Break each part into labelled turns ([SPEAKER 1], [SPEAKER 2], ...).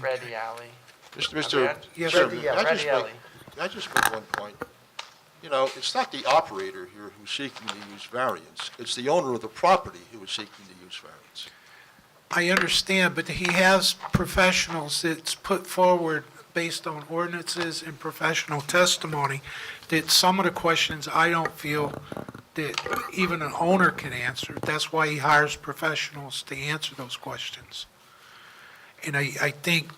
[SPEAKER 1] Ready Alley.
[SPEAKER 2] Mr.
[SPEAKER 1] I mean,
[SPEAKER 2] Mr.
[SPEAKER 1] I-
[SPEAKER 2] Chairman,
[SPEAKER 1] yeah,
[SPEAKER 2] may I
[SPEAKER 1] Ready
[SPEAKER 2] just
[SPEAKER 1] Alley.
[SPEAKER 2] make, may I just make one point? You know, it's not the operator here who's seeking to use variance, it's the owner of the property who is seeking to use variance.
[SPEAKER 3] I understand, but he has professionals that's put forward based on ordinances and professional testimony that some of the questions I don't feel that even an owner can answer. That's why he hires professionals to answer those questions. And I, I think,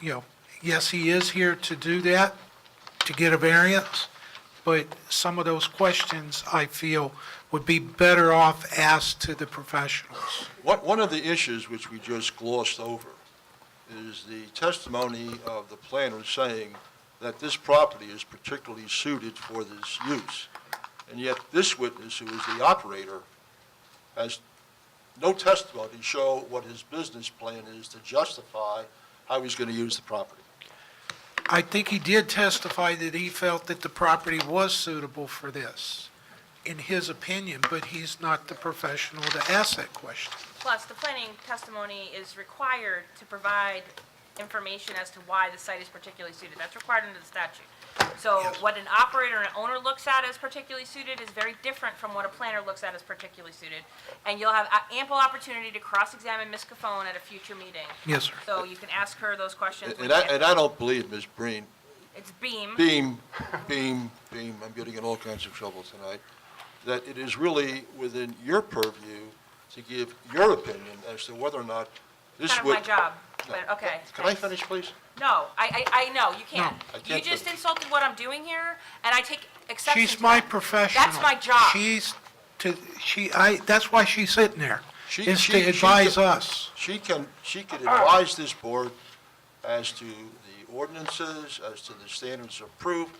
[SPEAKER 3] you know, yes, he is here to do that, to get a variance, but some of those questions I feel would be better off asked to the professionals.
[SPEAKER 2] What, one of the issues which we just glossed over is the testimony of the planner saying that this property is particularly suited for this use. And yet this witness, who is the operator, has no testimony to show what his business plan is to justify how he's going to use the property.
[SPEAKER 3] I think he did testify that he felt that the property was suitable for this, in his opinion, but he's not the professional to ask that question.
[SPEAKER 4] Plus, the planning testimony is required to provide information as to why the site is particularly suited. That's required under the statute. So what an operator and an owner looks at as particularly suited is very different from what a planner looks at as particularly suited. And you'll have a- ample opportunity to cross-examine Ms. Cofone at a future meeting.
[SPEAKER 3] Yes, sir.
[SPEAKER 4] So you can ask her those questions.
[SPEAKER 2] And-
[SPEAKER 4] when
[SPEAKER 2] And I,
[SPEAKER 4] you get-
[SPEAKER 2] and I don't believe Ms. Breen,
[SPEAKER 4] It's Beam.
[SPEAKER 2] Beam, Beam, Beam, I'm getting in all kinds of trouble tonight, that it is really within your purview to give your opinion as to whether or not this
[SPEAKER 4] Kind of
[SPEAKER 2] would...
[SPEAKER 4] my job, but okay.
[SPEAKER 2] Can I
[SPEAKER 4] thanks.
[SPEAKER 2] finish, please?
[SPEAKER 4] No, I, I, I know, you can't.
[SPEAKER 2] I
[SPEAKER 4] You
[SPEAKER 2] can't
[SPEAKER 4] just
[SPEAKER 2] finish.
[SPEAKER 4] insulted what I'm doing here, and I take exception
[SPEAKER 3] She's
[SPEAKER 4] to
[SPEAKER 3] my
[SPEAKER 4] that.
[SPEAKER 3] professional.
[SPEAKER 4] That's my job.
[SPEAKER 3] She's to, she, I, that's why she's sitting there,
[SPEAKER 2] She-
[SPEAKER 3] is
[SPEAKER 2] she-
[SPEAKER 3] to
[SPEAKER 2] she
[SPEAKER 3] advise
[SPEAKER 2] can-
[SPEAKER 3] us.
[SPEAKER 2] She can, she can
[SPEAKER 4] Uh-huh.
[SPEAKER 2] advise this board as to the ordinances, as to the standards of proof.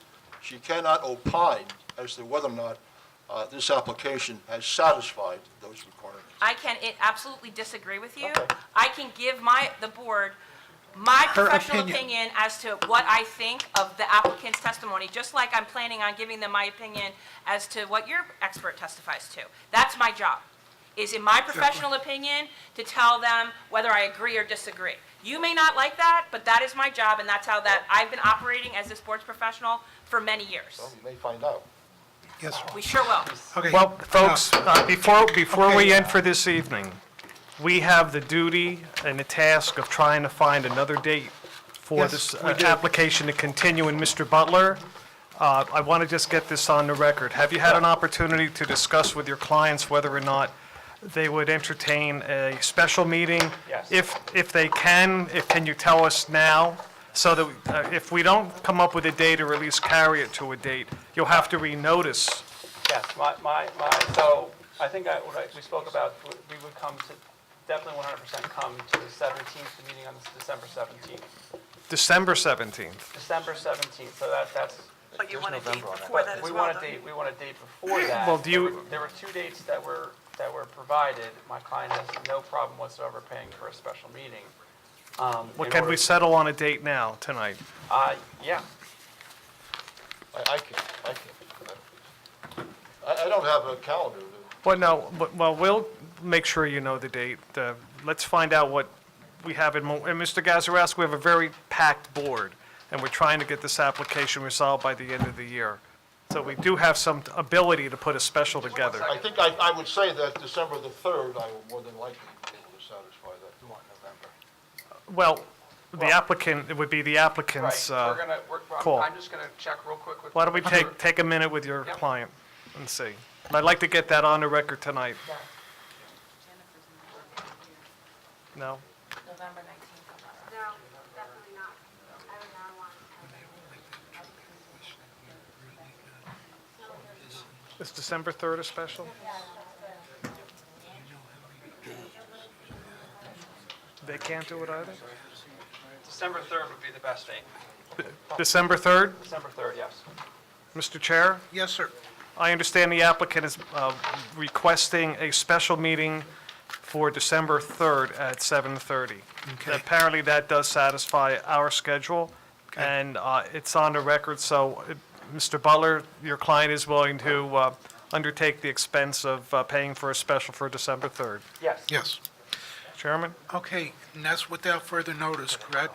[SPEAKER 2] She cannot opine as to whether or not uh, this application has satisfied those requirements.
[SPEAKER 4] I can i- absolutely disagree with you.
[SPEAKER 2] Okay.
[SPEAKER 4] I can give my, the board, my
[SPEAKER 3] Her
[SPEAKER 4] professional
[SPEAKER 3] opinion.
[SPEAKER 4] opinion as to what I think of the applicant's testimony, just like I'm planning on giving them my opinion as to what your expert testifies to. That's my job, is in my professional opinion, to tell them whether I agree or disagree. You may not like that, but that is my job, and that's how that, I've been operating as a sports professional for many years.
[SPEAKER 2] Well, you may find out.
[SPEAKER 3] Yes, sir.
[SPEAKER 4] We sure will.
[SPEAKER 3] Okay.
[SPEAKER 5] Well,
[SPEAKER 3] enough.
[SPEAKER 5] folks, uh, before, before we
[SPEAKER 3] Okay.
[SPEAKER 5] end for this evening, we have the duty and the task of trying to find another date for
[SPEAKER 3] Yes,
[SPEAKER 5] this
[SPEAKER 3] we
[SPEAKER 5] uh,
[SPEAKER 3] do.
[SPEAKER 5] application to continue. And Mr. Butler, uh, I want to just get this on the record. Have you had an opportunity to discuss with your clients whether or not they would entertain a special meeting?
[SPEAKER 1] Yes.
[SPEAKER 5] If, if they can, if, can you tell us now? So that, uh, if we don't come up with a date or at least carry it to a date, you'll have to renotice
[SPEAKER 6] Yes, my, my, my, so I think I, what I, we spoke about, w- we would come to, definitely one hundred percent come to the seventeenth, the meeting on the December seventeenth.
[SPEAKER 5] December 17th.
[SPEAKER 6] December seventeenth, so that, that's,
[SPEAKER 7] But you want a date before that
[SPEAKER 6] but
[SPEAKER 7] as
[SPEAKER 6] we
[SPEAKER 7] well,
[SPEAKER 6] want a
[SPEAKER 7] don't you?
[SPEAKER 6] date, we want a date before that.
[SPEAKER 5] Well, do you-
[SPEAKER 6] There were- There were two dates that were, that were provided. My client has no problem whatsoever paying for a special meeting. Um,
[SPEAKER 5] Well,
[SPEAKER 6] in
[SPEAKER 5] can
[SPEAKER 6] order-
[SPEAKER 5] we settle on a date now, tonight?
[SPEAKER 6] Uh, yeah,
[SPEAKER 2] I, I can't, I can't. I, I don't have a calendar. to-
[SPEAKER 5] Well, no, but- well, we'll make sure you know the date. Uh, Let's find out what we have in, mo- and Mr. Gazarovski, we have a very packed board, and we're trying to get this application resolved by the end of the year. So we do have some ability to put a special together.
[SPEAKER 2] I think I, I would say that December the 3rd, I will more than likely be able to satisfy that. You want November?
[SPEAKER 5] Well, the applicant, it would be the
[SPEAKER 8] Right,
[SPEAKER 5] applicant's,
[SPEAKER 8] we're
[SPEAKER 5] uh,
[SPEAKER 8] gonna, we're,
[SPEAKER 5] call.
[SPEAKER 8] I'm- I'm just gonna check real quick with.
[SPEAKER 5] why don't we take,
[SPEAKER 8] Sure.
[SPEAKER 5] take a minute with your
[SPEAKER 8] Yep.
[SPEAKER 5] client and see? And I'd like to get that on the record tonight. No?
[SPEAKER 9] No, definitely not. I would not want to.
[SPEAKER 5] Is December 3rd a special? They can't do it either?
[SPEAKER 6] December third would be the best date.
[SPEAKER 5] December 3rd?
[SPEAKER 6] December third, yes.
[SPEAKER 5] Mr. Chair,
[SPEAKER 3] Yes, sir.
[SPEAKER 5] I understand the applicant is uh, requesting a special meeting for December 3rd at 7:30.
[SPEAKER 3] Okay.
[SPEAKER 5] Apparently, that does satisfy our schedule, and uh, it's on the record, so uh, Mr. Butler, your client is willing to uh, undertake the expense of uh, paying for a special for December 3rd.
[SPEAKER 6] Yes.
[SPEAKER 3] Yes.
[SPEAKER 5] Chairman?
[SPEAKER 3] Okay, and that's without further notice, correct?